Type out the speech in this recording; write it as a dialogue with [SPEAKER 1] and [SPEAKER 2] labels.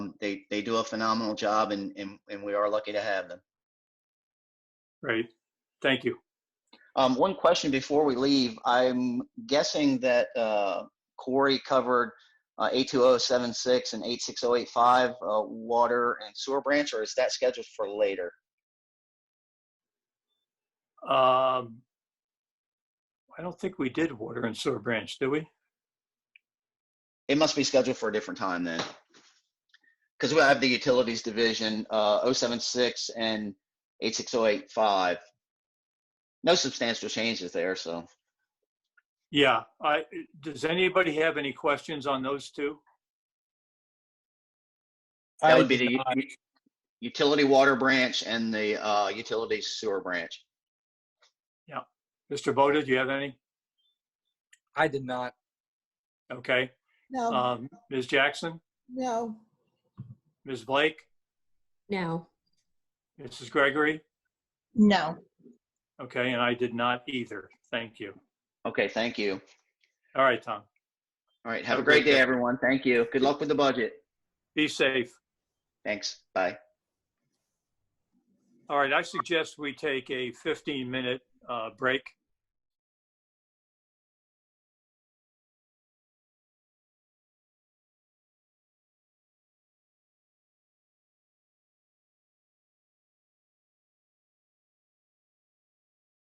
[SPEAKER 1] do a phenomenal job, and, and, and we are lucky to have them.
[SPEAKER 2] Right. Thank you.
[SPEAKER 1] Um, one question before we leave. I'm guessing that uh, Corey covered uh, 82076 and 86085 uh, water and sewer branch, or is that scheduled for later?
[SPEAKER 2] Um, I don't think we did water and sewer branch, did we?
[SPEAKER 1] It must be scheduled for a different time then. Because we have the utilities division, uh, 076 and 86085. No substantial changes there, so.
[SPEAKER 2] Yeah, I, does anybody have any questions on those two?
[SPEAKER 1] That would be the u- u- utility water branch and the uh, utility sewer branch.
[SPEAKER 2] Mr. Boda, do you have any?
[SPEAKER 3] I did not.
[SPEAKER 2] Okay.
[SPEAKER 4] No,
[SPEAKER 2] Um, Ms. Jackson,
[SPEAKER 4] no,
[SPEAKER 2] Ms. Blake,
[SPEAKER 5] No.
[SPEAKER 2] Mrs. Gregory?
[SPEAKER 4] no.
[SPEAKER 2] Okay, and I did not either. Thank you.
[SPEAKER 1] Okay, thank you.
[SPEAKER 2] All right, Tom.
[SPEAKER 1] All right, have a great day, everyone. Thank you. Good luck with the budget.
[SPEAKER 2] Be safe.
[SPEAKER 1] Thanks. Bye.
[SPEAKER 2] All right, I suggest we take a 15-minute uh, break.